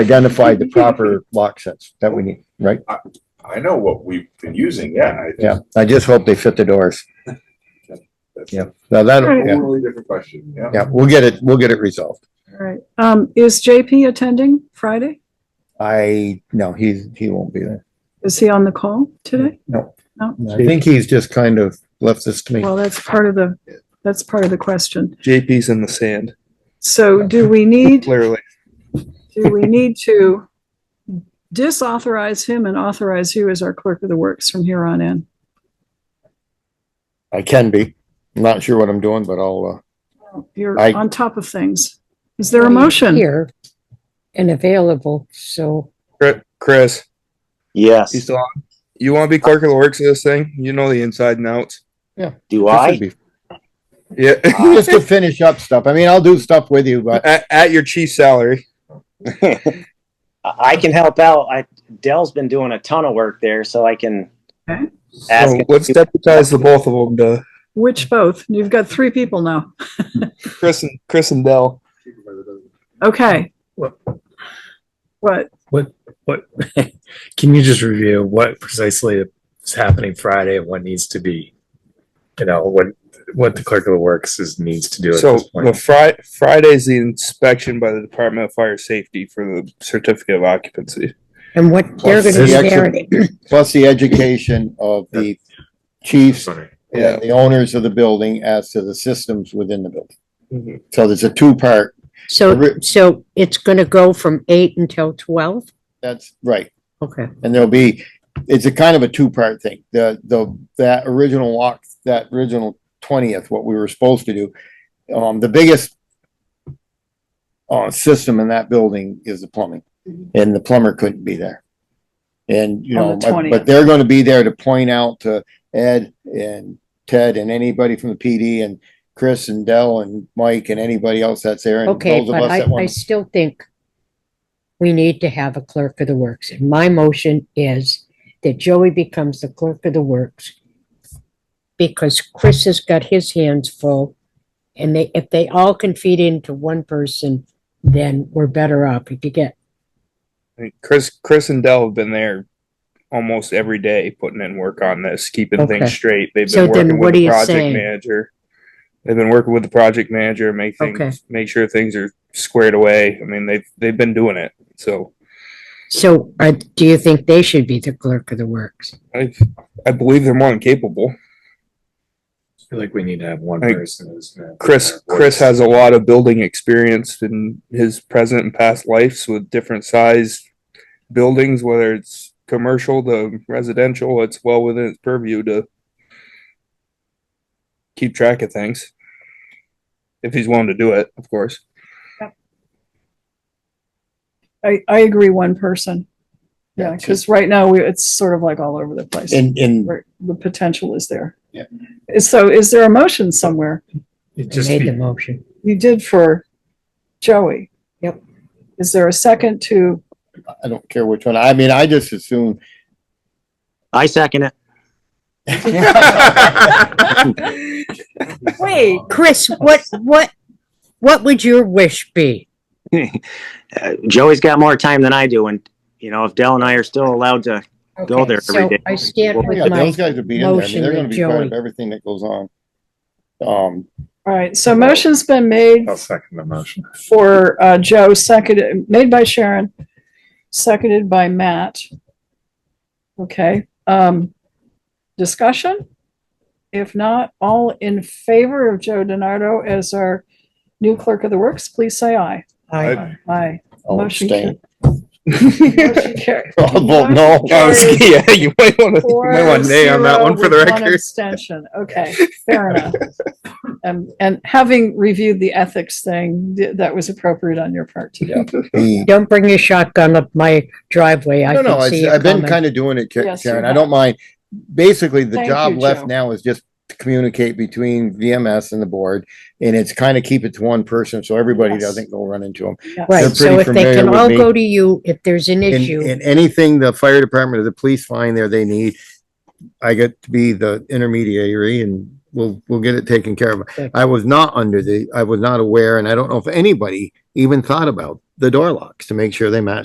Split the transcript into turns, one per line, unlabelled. identified the proper lock sets that we need, right?
I know what we've been using, yeah. I-
Yeah, I just hope they fit the doors.
that's-
Yeah, now that,
that's a
yeah,
Totally different question, yeah.
yeah, we'll get it, we'll get it resolved.
All right. Um, is JP attending Friday?
I, no, he's, he won't be there.
Is he on the call today?
No.
No.
I think he's just kind of left this to me.
Well, that's part of the, that's part of the question.
JP's in the sand,
So do we need,
clearly.
do we need to disauthorize him and authorize you as our clerk of the works from here on in?
I can be. I'm Not sure what I'm doing, but I'll, uh,
You're
I-
on top of things. Is there a motion?
Here and available, so
Chri- Chris, you
Yes.
still on? You want to be clerk of the works of this thing? You know the inside and outs.
Do
uh, this
I?
would be-
Yeah,
just to finish up stuff. I mean, I'll do stuff with you, but
at, at your chief salary.
I I can help out. I, Dell's been doing a ton of work there, so I can. Ask
So
him.
let's deputize the both of them to
Which both? You've got three people now.
Chris and Chris and Dell.
Okay.
What?
What?
What, can you just review what precisely is happening Friday and what needs to be, you know, what, what the clerk of the works is, needs to do at
So
this
the
point?
Fri- Friday's the inspection by the Department of Fire Safety for the certificate of occupancy.
and what they're gonna
Plus the
be
extra-
there.
plus the education of the chiefs
Sorry.
Yeah.
and the owners of the building as to the systems within the building.
Mhm.
So there's a two-part,
So, so it's gonna go from eight until twelve?
that's right.
Okay.
And there'll be, it's a kind of a two-part thing. The, the, that original walk, that original twentieth, what we were supposed to do. Um, the biggest uh, system in that building is the plumbing,
Mm-hmm.
and the plumber couldn't be there. And, you know,
On the
but,
20th.
but they're gonna be there to point out to Ed and Ted and anybody from the PD and Chris and Dell and Mike and anybody else that's there and
Okay,
those of
but
us
I,
that
I
want.
still think we need to have a clerk of the works. And my motion is that Joey becomes the clerk of the works because Chris has got his hands full. And they, if they all can feed into one person, then we're better off. If you get,
I think Chris, Chris and Dell have been there almost every day putting in work on this, keeping
Okay.
things straight. They've
So
been
then
working
what
with
are
the
you
project
saying?
manager. They've been working with the project manager, make
Okay.
things, make sure things are squared away. I mean, they've, they've been doing it. So
so I, do you think they should be the clerk of the works?
I, I believe they're more than capable.
I feel like we need to have one
Hey,
person who's. gonna-
Chris, Chris has a lot of building experience in his present and past lives with different sized buildings, whether it's commercial to residential, it's well within its purview to keep track of things. If he's willing to do it, of course.
I, I agree one person. Yeah,
Yeah,
because right now we, it's sort of like all over the place.
And, and
Where The potential is there.
Yeah.
So is there a motion somewhere?
It
I
just
made
be-
the motion.
You did for Joey.
Yep.
Is there a second to,
I don't care which one. I mean, I just assume.
I second it.
Wait,
Oh,
Chris, what, what, what would your wish be?
Uh, Joey's got more time than I do, and you know, if Dell and I are still allowed to, Go there
Okay, so
every day.
I stand
Well, yeah,
with my,
those guys will be in there. I mean,
motion
they're gonna
with
be part of
Joey.
everything that goes on. Um,
all right, so motion's been made
Oh.
I'll second the motion.
for uh, Joe, seconded, made by Sharon, seconded by Matt. Okay, um, discussion? If not, all in favor of Joe DiNardo as our new clerk of the works, please say aye.
I-
Aye.
I'll
Motion
abstain.
Motion carried.
I'll vote Oh, no.
I was- yeah, you might want to, you
Four
might want nay on that
zero
one for the
with one
record.
abstention. Okay, fair enough. Um, and having reviewed the ethics thing, th- that was appropriate on your part to do.
The-
don't bring your shotgun up my driveway, I
No, no,
can see
it's-
it
I've been
coming.
kind of doing it, Ka-
Yes, you
Karen. I
have.
don't mind. Basically, the
Thank
job
you, Joe.
left now is just to communicate between VMS and the board. And it's kind of keep it to one person so everybody
Yes.
doesn't go run into them.
Yes.
They're
Right, so
pretty
if they
familiar
can
with
all
me.
go to you, if there's an
And,
issue,
and anything the fire department or the police find there they need, I get to be the intermediary and we'll, we'll get it taken care of.
Okay.
I was not under the, I was not aware, and I don't know if anybody even thought about the door locks to make sure they match